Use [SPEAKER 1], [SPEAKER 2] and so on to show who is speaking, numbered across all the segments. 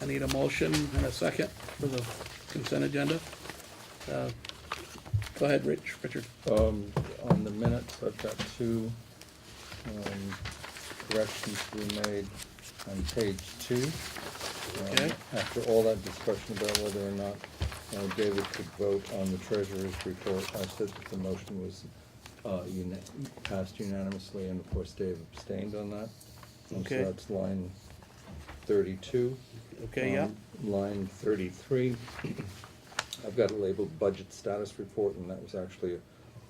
[SPEAKER 1] I need a motion and a second for the consent agenda. Uh, Go ahead, Rich, Richard.
[SPEAKER 2] Um, on the minutes, I've got two, um, corrections to be made on page two. Um,
[SPEAKER 1] Okay.
[SPEAKER 2] After all that discussion about whether or not, uh, David could vote on the treasurer's report, I said that the motion was, uh, uni- passed unanimously, and of course, Dave abstained on that. And
[SPEAKER 1] Okay.
[SPEAKER 2] So that's line thirty-two.
[SPEAKER 1] Okay, yeah.
[SPEAKER 2] Um, Line thirty-three, I've got it labeled budget status report, and that was actually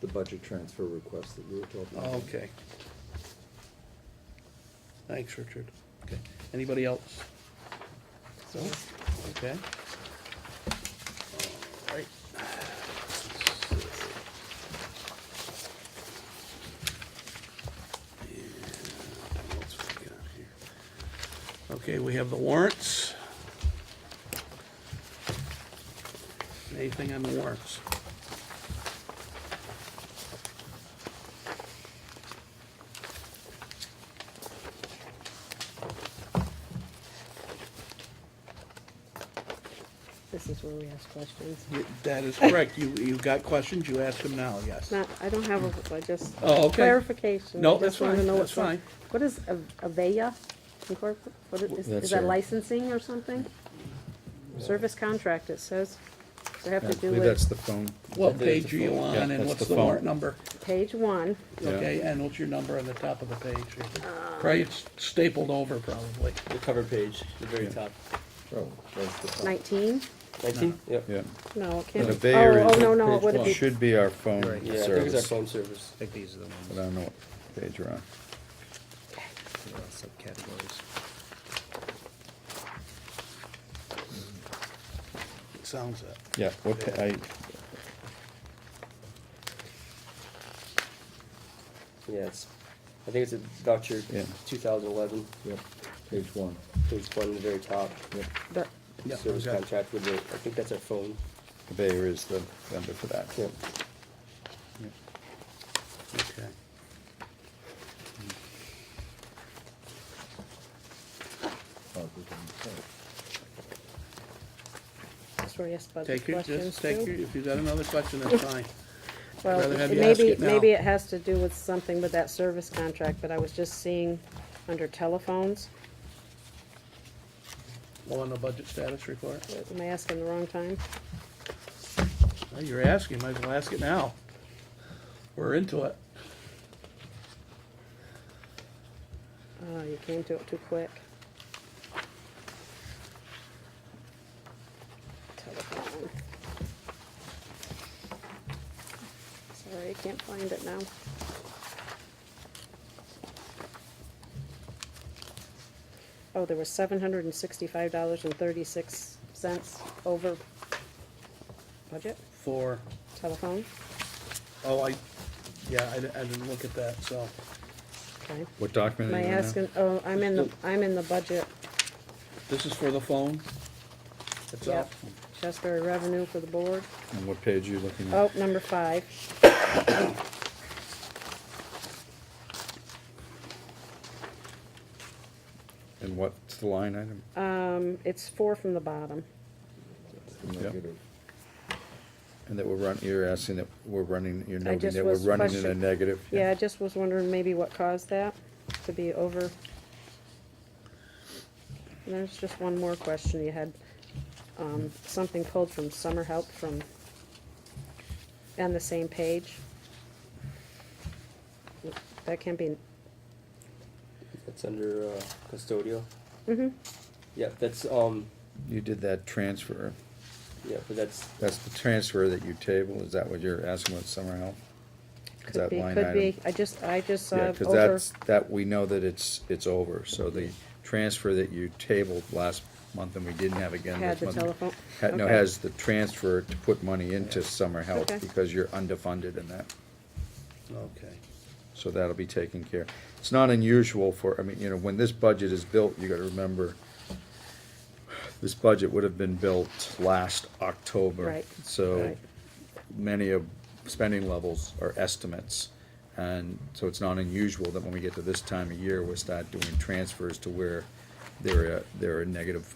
[SPEAKER 2] the budget transfer request that we were talking about.
[SPEAKER 1] Okay. Thanks, Richard. Okay. Anybody else? So, okay. All right. And what else we got here? Okay, we have the warrants. Anything on the warrants?
[SPEAKER 3] This is where we ask questions.
[SPEAKER 1] Y- That is correct. You, you've got questions, you ask them now, yes.
[SPEAKER 3] Not, I don't have a, I just
[SPEAKER 1] Oh, okay.
[SPEAKER 3] clarification.
[SPEAKER 1] No,
[SPEAKER 3] I just
[SPEAKER 1] that's
[SPEAKER 3] wanted to
[SPEAKER 1] fine,
[SPEAKER 3] know
[SPEAKER 1] that's
[SPEAKER 3] what's up.
[SPEAKER 1] fine.
[SPEAKER 3] What is A- Avaya Incorporated? What is,
[SPEAKER 2] That's
[SPEAKER 3] is that
[SPEAKER 2] her.
[SPEAKER 3] licensing or something? Service contract, it says. Does it have
[SPEAKER 4] I
[SPEAKER 3] to do
[SPEAKER 4] believe
[SPEAKER 3] with
[SPEAKER 4] that's the phone.
[SPEAKER 1] What page are you
[SPEAKER 4] Yeah,
[SPEAKER 1] on and
[SPEAKER 4] that's
[SPEAKER 1] what's the
[SPEAKER 4] the
[SPEAKER 1] warrant
[SPEAKER 4] phone.
[SPEAKER 1] number?
[SPEAKER 3] page one?
[SPEAKER 4] Yeah.
[SPEAKER 1] Okay, and what's your number on the top of the page? Probably it's stapled over probably.
[SPEAKER 5] The cover page, the very
[SPEAKER 4] Yeah.
[SPEAKER 5] top.
[SPEAKER 2] Oh, that's the top.
[SPEAKER 3] Nineteen?
[SPEAKER 5] Nineteen? Yep.
[SPEAKER 4] Yeah.
[SPEAKER 3] No, it
[SPEAKER 4] And
[SPEAKER 3] can't.
[SPEAKER 4] a
[SPEAKER 3] be.
[SPEAKER 4] Bayer
[SPEAKER 3] Oh,
[SPEAKER 4] is-
[SPEAKER 3] oh, no, no, it wouldn't be.
[SPEAKER 4] Should be our phone
[SPEAKER 5] Yeah, I think it's our
[SPEAKER 4] service,
[SPEAKER 5] phone service.
[SPEAKER 6] think these are the ones,
[SPEAKER 4] but I don't know what page we're on.
[SPEAKER 6] you know, subcategories.
[SPEAKER 1] It sounds it.
[SPEAKER 4] Yeah, what, pa- I,
[SPEAKER 5] Yeah, it's, I think it's a voucher,
[SPEAKER 4] Yeah.
[SPEAKER 5] two thousand eleven,
[SPEAKER 2] Yep, page one.
[SPEAKER 5] page one, the very top.
[SPEAKER 3] But
[SPEAKER 1] Yeah,
[SPEAKER 5] Service
[SPEAKER 1] okay.
[SPEAKER 5] contract with the, I think that's our phone.
[SPEAKER 4] Bayer is the vendor for that.
[SPEAKER 5] Yep.
[SPEAKER 1] Okay.
[SPEAKER 2] Oh, we can- oh,
[SPEAKER 3] that's where we ask budget
[SPEAKER 1] Take your,
[SPEAKER 3] questions
[SPEAKER 1] just take your,
[SPEAKER 3] too.
[SPEAKER 1] if you got another question, that's fine.
[SPEAKER 3] Well,
[SPEAKER 1] rather have
[SPEAKER 3] it
[SPEAKER 1] you
[SPEAKER 3] may
[SPEAKER 1] ask
[SPEAKER 3] be-
[SPEAKER 1] it now.
[SPEAKER 3] Maybe it has to do with something with that service contract, but I was just seeing under telephones.
[SPEAKER 1] Well, on the budget status report,
[SPEAKER 3] Am I asking the wrong time?
[SPEAKER 1] Well, you're asking, might as well ask it now. We're into it.
[SPEAKER 3] Oh, you came to it too quick. Telephone. Sorry, I can't find it now. Oh, there was seven hundred and sixty-five dollars and thirty-six cents over budget,
[SPEAKER 1] For,
[SPEAKER 3] telephone,
[SPEAKER 1] oh, I, yeah, I di- I didn't look at that, so.
[SPEAKER 3] okay.
[SPEAKER 4] What document
[SPEAKER 3] Am
[SPEAKER 4] are
[SPEAKER 3] I
[SPEAKER 4] you on now?
[SPEAKER 3] asking, oh, I'm in the, I'm in the budget.
[SPEAKER 1] This is for the phone? That's all?
[SPEAKER 3] Yep, Shasberry revenue for the board.
[SPEAKER 4] And what page are you looking
[SPEAKER 3] Oh,
[SPEAKER 4] at?
[SPEAKER 3] number five.
[SPEAKER 4] And what's the line item?
[SPEAKER 3] Um, it's four from the bottom.
[SPEAKER 2] it's the negative.
[SPEAKER 4] And that we're run, you're asking that we're running, you're noting
[SPEAKER 3] just
[SPEAKER 4] that we're
[SPEAKER 3] was
[SPEAKER 4] running in a
[SPEAKER 3] question-
[SPEAKER 4] negative?
[SPEAKER 3] Yeah, I just was wondering maybe what caused that to be over. And there's just one more question. You had, um, something pulled from summer help from, on the same page. That can be,
[SPEAKER 5] That's under, uh, custodial.
[SPEAKER 3] hmm
[SPEAKER 5] Yeah, that's, um,
[SPEAKER 4] You did that transfer,
[SPEAKER 5] yeah, but that's,
[SPEAKER 4] that's the transfer that you table, is that what you're asking with summer help? Is
[SPEAKER 3] could
[SPEAKER 4] that
[SPEAKER 3] be,
[SPEAKER 4] line
[SPEAKER 3] could be.
[SPEAKER 4] item?
[SPEAKER 3] I just, I just saw
[SPEAKER 4] Yeah,
[SPEAKER 3] it
[SPEAKER 4] because
[SPEAKER 3] over.
[SPEAKER 4] that's, that, we know that it's, it's over, so the transfer that you tabled last month and we didn't have again
[SPEAKER 3] Had
[SPEAKER 4] this
[SPEAKER 3] the
[SPEAKER 4] month.
[SPEAKER 3] telephone.
[SPEAKER 4] ha- No,
[SPEAKER 3] Okay.
[SPEAKER 4] has the transfer to put money into summer help,
[SPEAKER 3] Okay.
[SPEAKER 4] because you're underfunded in that,
[SPEAKER 1] Okay.
[SPEAKER 4] so that'll be taken care. It's not unusual for, I mean, you know, when this budget is built, you gotta remember, this budget would have been built last October.
[SPEAKER 3] Right,
[SPEAKER 4] So
[SPEAKER 3] right.
[SPEAKER 4] many of spending levels are estimates. And so it's not unusual that when we get to this time of year, we start doing transfers to where there are, there are negative